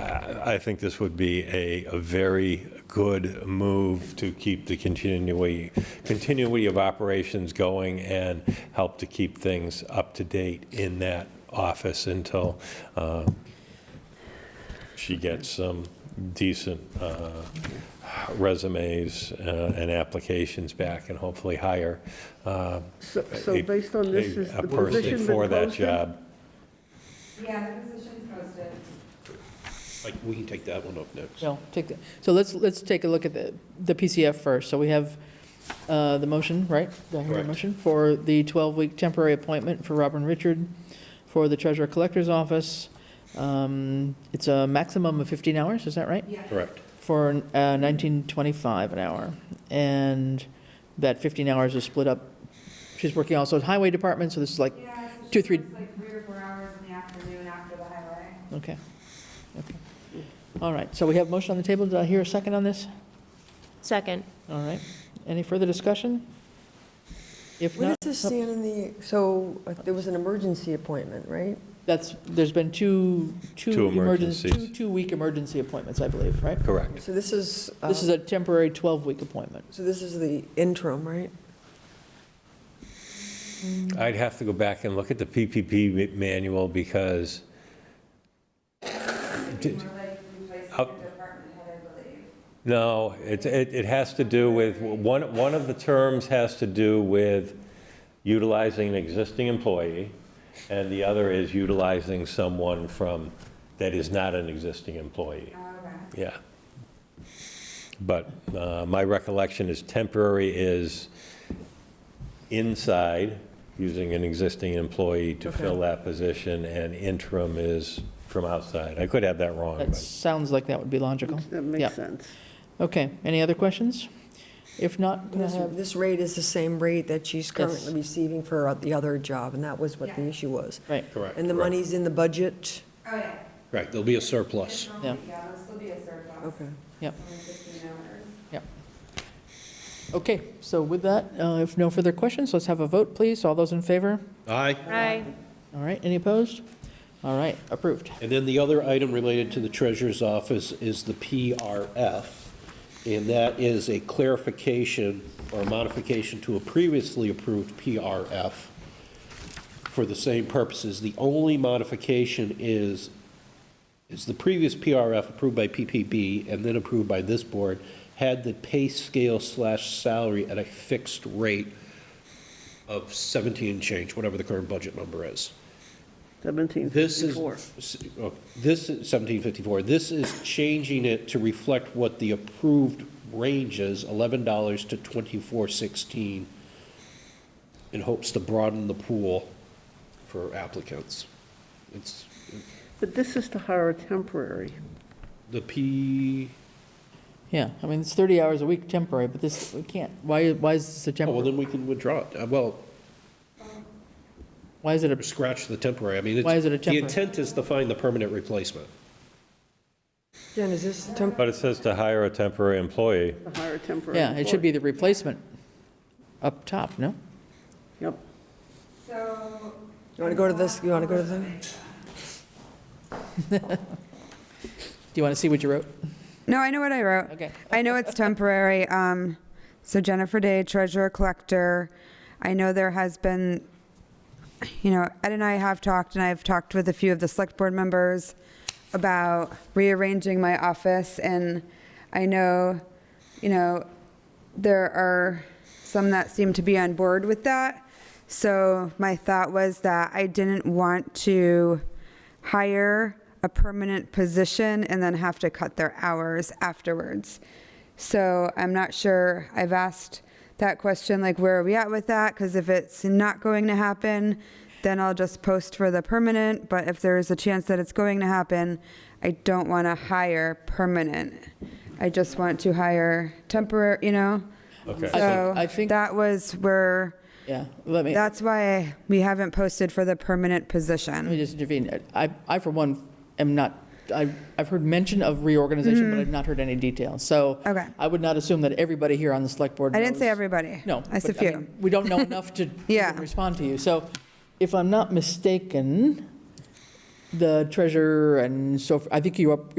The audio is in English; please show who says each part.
Speaker 1: I think this would be a, a very good move to keep the continuity, continuity of operations going and help to keep things up to date in that office until uh, she gets some decent uh, resumes uh, and applications back and hopefully hire uh,
Speaker 2: So so
Speaker 1: a-
Speaker 2: based on this,
Speaker 1: a-
Speaker 2: is
Speaker 1: a
Speaker 2: the
Speaker 1: person
Speaker 2: position
Speaker 1: for
Speaker 2: been
Speaker 1: that
Speaker 2: posted?
Speaker 1: job.
Speaker 3: Yeah, the position's posted.
Speaker 4: Like, we can take that one up next.
Speaker 5: No, take that. So let's, let's take a look at the, the PCF first. So we have uh, the motion, right? Do I hear a
Speaker 4: Correct.
Speaker 5: motion? For the 12-week temporary appointment for Robin Richard for the Treasurer Collector's Office. Um, It's a maximum of 15 hours, is that right?
Speaker 3: Yeah.
Speaker 1: Correct.
Speaker 5: For uh, 1925 an hour. And that 15 hours is split up. She's working also at Highway Department, so this is like,
Speaker 3: Yeah, so
Speaker 5: Two,
Speaker 3: she
Speaker 5: three-
Speaker 3: works like three or four hours in the afternoon after the highway.
Speaker 5: okay. okay. All right, so we have motion on the table. Did I hear a second on this?
Speaker 6: Second.
Speaker 5: All right. Any further discussion? If
Speaker 2: What
Speaker 5: not,
Speaker 2: does this stand in the, so uh, there was an emergency appointment, right?
Speaker 5: that's, there's been two,
Speaker 1: Two
Speaker 5: two emergency, two
Speaker 1: emergencies.
Speaker 5: two-week emergency appointments, I believe, right?
Speaker 1: Correct.
Speaker 2: So this is, uh,
Speaker 5: This is a temporary 12-week appointment.
Speaker 2: so this is the interim, right?
Speaker 1: I'd have to go back and look at the PPP manual because
Speaker 3: We're
Speaker 1: Did-
Speaker 3: like replacing
Speaker 1: Up-
Speaker 3: the department head, I believe.
Speaker 1: No, it, it, it has to do with, one, one of the terms has to do with utilizing an existing employee, and the other is utilizing someone from, that is not an existing employee. Yeah. But uh, my recollection is temporary is inside, using an existing employee to fill that position, and interim is from outside. I could have that wrong,
Speaker 5: That
Speaker 1: but
Speaker 5: sounds like that would be logical.
Speaker 2: That
Speaker 5: Yeah.
Speaker 2: makes sense.
Speaker 5: Okay, any other questions? If not, can I
Speaker 2: This
Speaker 5: have,
Speaker 2: this rate is the same rate that she's currently receiving for the other job, and that was what the
Speaker 3: Yeah.
Speaker 2: issue was.
Speaker 5: right,
Speaker 4: Correct.
Speaker 2: And the
Speaker 4: correct.
Speaker 2: money's in the budget?
Speaker 3: Oh, yeah.
Speaker 4: Right, there'll be a
Speaker 3: It's
Speaker 4: surplus.
Speaker 3: normally- Yeah, there'll still be a surplus.
Speaker 2: Okay.
Speaker 5: Yep.
Speaker 3: Only 15 hours.
Speaker 5: okay, so with that, uh, if no further questions, let's have a vote, please. All those in favor?
Speaker 4: Aye.
Speaker 6: Aye.
Speaker 5: All right, any opposed? All right, approved.
Speaker 4: And then the other item related to the treasurer's office is the PRF, and that is a clarification or modification to a previously approved PRF for the same purposes. The only modification is, is the previous PRF approved by PPB and then approved by this board had the pay scale slash salary at a fixed rate of 17 and change, whatever the current budget number is. This is,
Speaker 2: 1754.
Speaker 4: s- oh, this is 1754, this is changing it to reflect what the approved range is, $11 to 24.16, in hopes to broaden the pool for applicants. It's
Speaker 2: But this is to hire a temporary.
Speaker 4: the P,
Speaker 5: Yeah, I mean, it's 30 hours a week temporary, but this, we can't, why, why is this
Speaker 4: oh,
Speaker 5: a
Speaker 4: well,
Speaker 5: temporary?
Speaker 4: then we can withdraw it. Uh, Well,
Speaker 5: Why is it a
Speaker 4: scratch the temporary, I mean, it's.
Speaker 5: Why is it
Speaker 4: The
Speaker 5: a temporary?
Speaker 4: intent is to find the permanent replacement.
Speaker 2: Jen, is this temp,
Speaker 1: but it says to hire a temporary employee.
Speaker 7: to hire a temporary.
Speaker 5: Yeah, it should be the replacement up top, no?
Speaker 7: Yep.
Speaker 3: So.
Speaker 2: you want to go to this, you want to go to the,
Speaker 5: Do you want to see what you wrote?
Speaker 3: No, I know what I wrote.
Speaker 5: Okay.
Speaker 3: I know it's temporary. Um, so Jennifer Day, treasurer collector. I know there has been, you know, Ed and I have talked, and I've talked with a few of the select board members about rearranging my office, and I know, you know, there are some that seem to be on board with that. So my thought was that I didn't want to hire a permanent position and then have to cut their hours afterwards. So I'm not sure, I've asked that question, like, where are we at with that? Because if it's not going to happen, then I'll just post for the permanent, but if there is a chance that it's going to happen, I don't want to hire permanent. I just want to hire temporary, you know?
Speaker 1: Okay.
Speaker 5: I think- I
Speaker 3: So
Speaker 5: think-
Speaker 3: that was where,
Speaker 5: Yeah, let me, let
Speaker 3: that's why we haven't posted for the permanent position.
Speaker 5: me just intervene. I, I for one am not, I've, I've heard mention of reorganization, but I've not heard any details. So
Speaker 3: Mm-hmm. Okay.
Speaker 5: I would not assume that everybody here on the select board
Speaker 3: I didn't say
Speaker 5: knows-
Speaker 3: everybody.
Speaker 5: No.
Speaker 3: I said
Speaker 5: but,
Speaker 3: few.
Speaker 5: mean, We don't know enough to even
Speaker 3: Yeah.
Speaker 5: respond to you. So if I'm not mistaken, the treasurer and so, f- I think you are,